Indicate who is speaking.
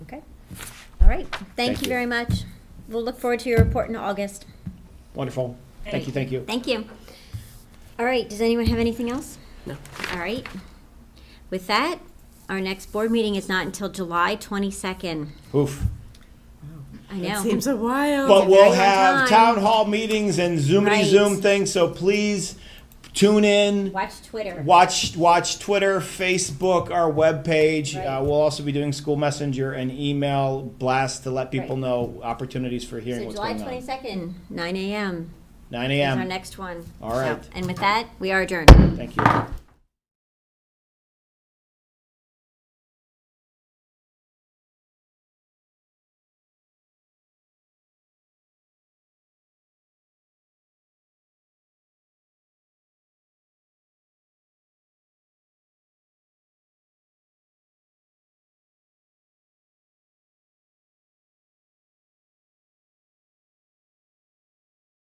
Speaker 1: right, thank
Speaker 2: Thank
Speaker 1: you
Speaker 2: you.
Speaker 1: very much. We'll look forward to your report in August.
Speaker 2: Wonderful. Thank you, thank you.
Speaker 1: Thank you. All right, does anyone have anything else? No. All right. With that, our next board meeting is not until July 22nd.
Speaker 2: Oof.
Speaker 1: I
Speaker 3: It
Speaker 1: know.
Speaker 3: seems a while.
Speaker 2: But we'll
Speaker 1: very on
Speaker 2: have
Speaker 1: time.
Speaker 2: town hall meetings and Zoomity
Speaker 1: Right.
Speaker 2: Zoom things, so please tune in.
Speaker 1: Watch Twitter.
Speaker 2: Watch watch Twitter, Facebook, our webpage.
Speaker 1: Right.
Speaker 2: Uh, we'll also be doing school messenger and email blasts to let people
Speaker 1: Right.
Speaker 2: know opportunities for hearing
Speaker 1: So
Speaker 2: what's
Speaker 1: July
Speaker 2: going on.
Speaker 1: 22nd, 9 AM
Speaker 2: 9
Speaker 1: is our
Speaker 2: a.m.
Speaker 1: next one.
Speaker 2: All
Speaker 1: So-
Speaker 2: right.
Speaker 1: And with that, we are adjourned.
Speaker 2: Thank you.